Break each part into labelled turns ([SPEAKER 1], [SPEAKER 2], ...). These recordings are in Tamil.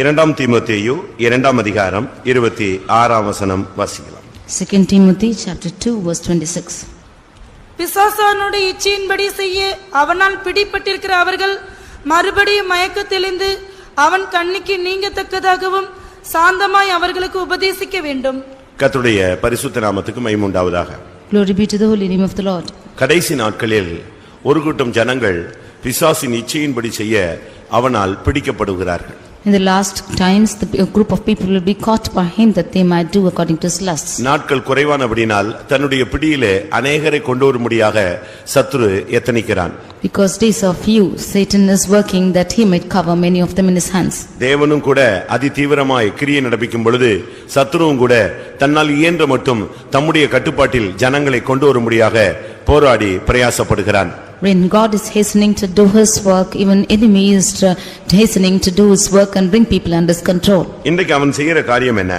[SPEAKER 1] இரண்டாம் தீமோத்தேயு இரண்டாம் அதிகாரம் இருபத்தி ஆறாம் வசனம் வாசிக்கலாம்
[SPEAKER 2] 2 Timothy chapter 2 verse 26.
[SPEAKER 3] பிசாசானுடைய இச்சையின்படி செய்ய அவனால் பிடிபட்டிருக்கிற அவர்கள் மறுபடியும் மயக்க தெளிந்து அவன் கண்ணிக்கு நீங்கத்தக்கதாகவும் சாந்தமாய் அவர்களுக்கு உபதேசிக்க வேண்டும்
[SPEAKER 1] கர்த்தருடைய பரிசுத்த நாமத்துக்கு மைமுண்டாவதாக
[SPEAKER 2] Glory be to the holy name of the Lord.
[SPEAKER 1] கடைசி நாட்களில் ஒரு கூட்டம் ஜனங்கள் பிசாசின் இச்சையின்படி செய்ய அவனால் பிடிக்கப்படுகிறார்கள்
[SPEAKER 2] In the last times, the a group of people will be caught by him that they might do according to his lusts.
[SPEAKER 1] நாட்கள் குறைவானபடினால் தன்னுடைய பிடியிலே அநேகரை கொண்டு வரும்படியாக சத்துரு எத்தனிக்கிறான்
[SPEAKER 2] Because days are few, Satan is working that he might cover many of them in his hands.
[SPEAKER 1] தேவனும் கூட அதி தீவிரமாய் கிரியை நடப்பிக்கும் பொழுது சத்துருவும் கூட தன்னால் இயன்ற மட்டும் தம்முடைய கட்டுப்பாட்டில் ஜனங்களை கொண்டு வரும்படியாக போராடி பிரயாசப்படுகிறான்
[SPEAKER 2] When God is hastening to do his work, even enemy is uh, hastening to do his work and bring people under his control.
[SPEAKER 1] இன்றைக்கு அவன் செய்கிற காரியம் என்ன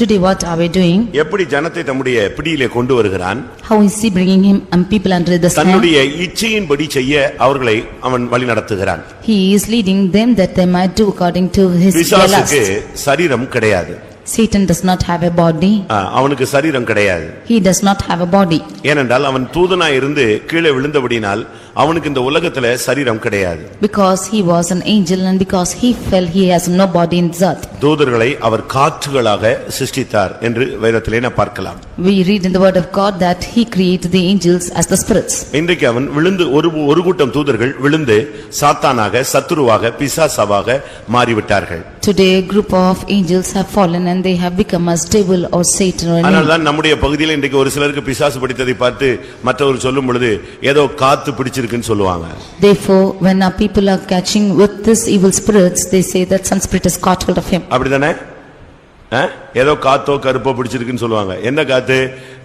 [SPEAKER 2] Today what are we doing?
[SPEAKER 1] எப்படி ஜனத்தை தம்முடைய பிடியிலே கொண்டு வருகிறான்
[SPEAKER 2] How is he bringing him and people under his hand?
[SPEAKER 1] தன்னுடைய இச்சையின்படி செய்ய அவர்களை அவன் வழி நடத்துகிறான்
[SPEAKER 2] He is leading them that they might do according to his their
[SPEAKER 1] பிசாசுக்கு
[SPEAKER 2] lusts.
[SPEAKER 1] சரீரம் கிடையாது
[SPEAKER 2] Satan does not have a body.
[SPEAKER 1] ஆ, அவனுக்கு சரீரம் கிடையாது
[SPEAKER 2] He does not have a body.
[SPEAKER 1] ஏனென்றால் அவன் தூதனாய் இருந்து கீழே விழுந்தபடினால் அவனுக்கு இந்த உலகத்துல சரீரம் கிடையாது
[SPEAKER 2] Because he was an angel and because he fell, he has no body in this earth.
[SPEAKER 1] தூதர்களை அவர் காற்றுகளாக சிருஷ்டித்தார் என்று வேதத்திலே நாம் பார்க்கலாம்
[SPEAKER 2] We read in the word of God that he created the angels as the spirits.
[SPEAKER 1] இன்றைக்கு அவன் விழுந்து ஒரு ஒரு கூட்டம் தூதர்கள் விழுந்து சாத்தானாக சத்துருவாக பிசாசாவாக மாறிவிட்டார்கள்
[SPEAKER 2] Today, a group of angels have fallen and they have become as devil or Satan or an angel.
[SPEAKER 1] அதனால்தான் நம்முடைய பகுதியில் இன்றைக்கு ஒரு சிலருக்கு பிசாசு பிடித்ததை பார்த்து மற்றவர் சொல்லும் பொழுது ஏதோ காத்து பிடிச்சிருக்குன்னு சொல்லுவாங்க
[SPEAKER 2] Therefore, when our people are catching with this evil spirits, they say that some spirit has caught hold of him.
[SPEAKER 1] அப்படிதானே ஆ? ஏதோ காத்தோ கருப்போ பிடிச்சிருக்குன்னு சொல்லுவாங்க என்ன காத்து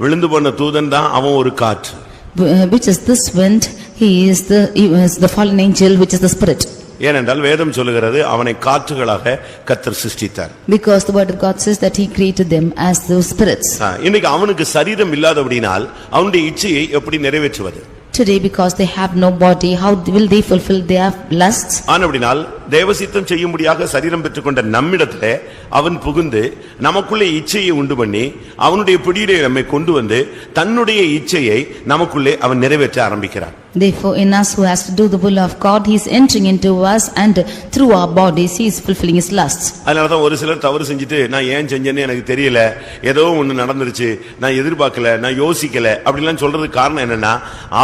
[SPEAKER 1] விழுந்து போன தூதன் தான் அவன் ஒரு காற்று
[SPEAKER 2] Wh- uh, Which is this wind, he is the, he is the fallen angel, which is the spirit.
[SPEAKER 1] ஏனென்றால் வேதம் சொல்லுகிறது அவனை காற்றுகளாக கத்தர் சிருஷ்டித்தார்
[SPEAKER 2] Because the word of God says that he created them as those spirits.
[SPEAKER 1] ஆ, இன்னைக்கு அவனுக்கு சரீரம் இல்லாதபடினால் அவனுடைய இச்சையை எப்படி நிறைவேற்றுவது
[SPEAKER 2] Today, because they have no body, how will they fulfill their lusts?
[SPEAKER 1] ஆனபடினால் தேவசித்தம் செய்யும்படியாக சரீரம் பெற்றுக்கொண்ட நம்மிடத்திலே அவன் புகுந்து நமக்குள்ளே இச்சையை உண்டு பண்ணி அவனுடைய பிடியிலே நம்மை கொண்டு வந்து தன்னுடைய இச்சையை நமக்குள்ளே அவன் நிறைவேற்ற ஆரம்பிக்கிறான்
[SPEAKER 2] Therefore, in us who has to do the will of God, he is entering into us and through our bodies, he is fulfilling his lusts.
[SPEAKER 1] அதனாலதான் ஒரு சிலர் தவறு செஞ்சுட்டு நான் ஏன் செஞ்சேன்னு எனக்கு தெரியல ஏதோ ஒண்ணு நடந்துருச்சு நான் எதிர்பார்க்கல நான் யோசிக்கல அப்படிலாம் சொல்றதுக்கு காரணம் என்னன்னா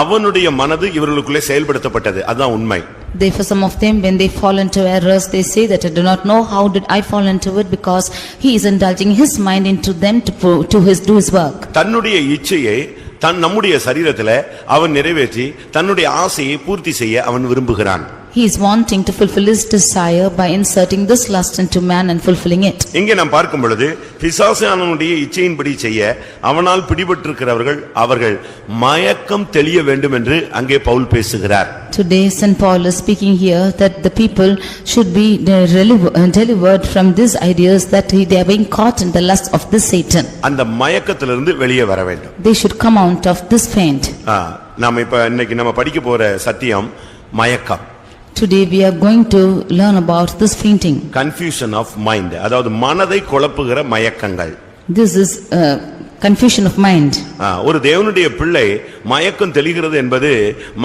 [SPEAKER 1] அவனுடைய மனது இவர்களுக்குள்ளே செயல்படுத்தப்பட்டது அதுதான் உண்மை
[SPEAKER 2] Therefore, some of them, when they fall into errors, they say that I do not know how did I fall into it because he is indulging his mind into them to pro- to his, do his work.
[SPEAKER 1] தன்னுடைய இச்சையை தன் நம்முடைய சரீரத்திலே அவன் நிறைவேற்றி தன்னுடைய ஆசையை பூர்த்தி செய்ய அவன் விரும்புகிறான்
[SPEAKER 2] He is wanting to fulfill his desire by inserting this lust into man and fulfilling it.
[SPEAKER 1] இங்கே நாம் பார்க்கும் பொழுது பிசாசானனுடைய இச்சையின்படி செய்ய அவனால் பிடிபட்டிருக்கிறவர்கள் அவர்கள் மயக்கம் தெளிய வேண்டும் என்று அங்கே பவுல் பேசுகிறார்
[SPEAKER 2] Today, St. Paul is speaking here that the people should be de- reliv- uh, delivered from these ideas that they are being caught in the lust of this Satan.
[SPEAKER 1] அந்த மயக்கத்திலிருந்து வெளியே வர வேண்டும்
[SPEAKER 2] They should come out of this faint.
[SPEAKER 1] ஆ, நாம் இப்ப இன்னைக்கு நம்ம படிக்க போற சத்தியம் மயக்கம்
[SPEAKER 2] Today, we are going to learn about this fainting.
[SPEAKER 1] Confusion of mind அதாவது மனதை குழப்புகிற மயக்கங்கள்
[SPEAKER 2] This is uh, confusion of mind.
[SPEAKER 1] ஆ, ஒரு தேவனுடைய பிள்ளை மயக்கம் தெளிகிறது என்பது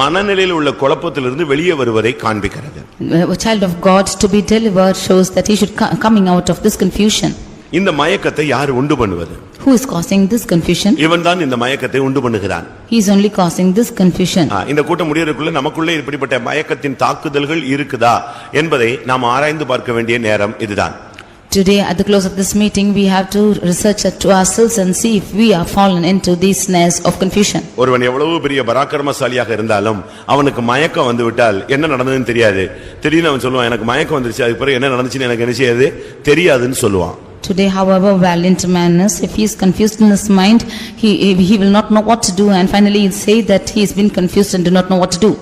[SPEAKER 1] மனநிலையில் உள்ள குழப்பத்திலிருந்து வெளியே வருவதை காண்பிக்கிறது
[SPEAKER 2] Uh, A child of God to be delivered shows that he should co- coming out of this confusion.
[SPEAKER 1] இந்த மயக்கத்தை யார் உண்டு பண்ணுவது
[SPEAKER 2] Who is causing this confusion?
[SPEAKER 1] இவன் தான் இந்த மயக்கத்தை உண்டு பண்ணுகிறான்
[SPEAKER 2] He is only causing this confusion.
[SPEAKER 1] ஆ, இந்த கூட்டம் முடியறதுக்குள்ள நமக்குள்ளே இப்படிப்பட்ட மயக்கத்தின் தாக்குதல்கள் இருக்குதா என்பதை நாம் ஆராய்ந்து பார்க்க வேண்டிய நேரம் இதுதான்
[SPEAKER 2] Today, at the close of this meeting, we have to research it to ourselves and see if we are fallen into these snares of confusion.
[SPEAKER 1] ஒருவன் எவ்வளவு பெரிய பராக்கிரமசாலியாக இருந்தாலும் அவனுக்கு மயக்கம் வந்து விட்டால் என்ன நடந்ததுன்னு தெரியாது திடீர்னு அவன் சொல்லுவான் எனக்கு மயக்கம் வந்துருச்சு அதுக்கு பிறகு என்ன நடந்துச்சுன்னு எனக்கு என்ன செய்யாது தெரியாதுன்னு சொல்லுவான்
[SPEAKER 2] Today, however valiant man is, if he is confused in his mind, he he will not know what to do and finally he'll say that he has been confused and do not know what to do.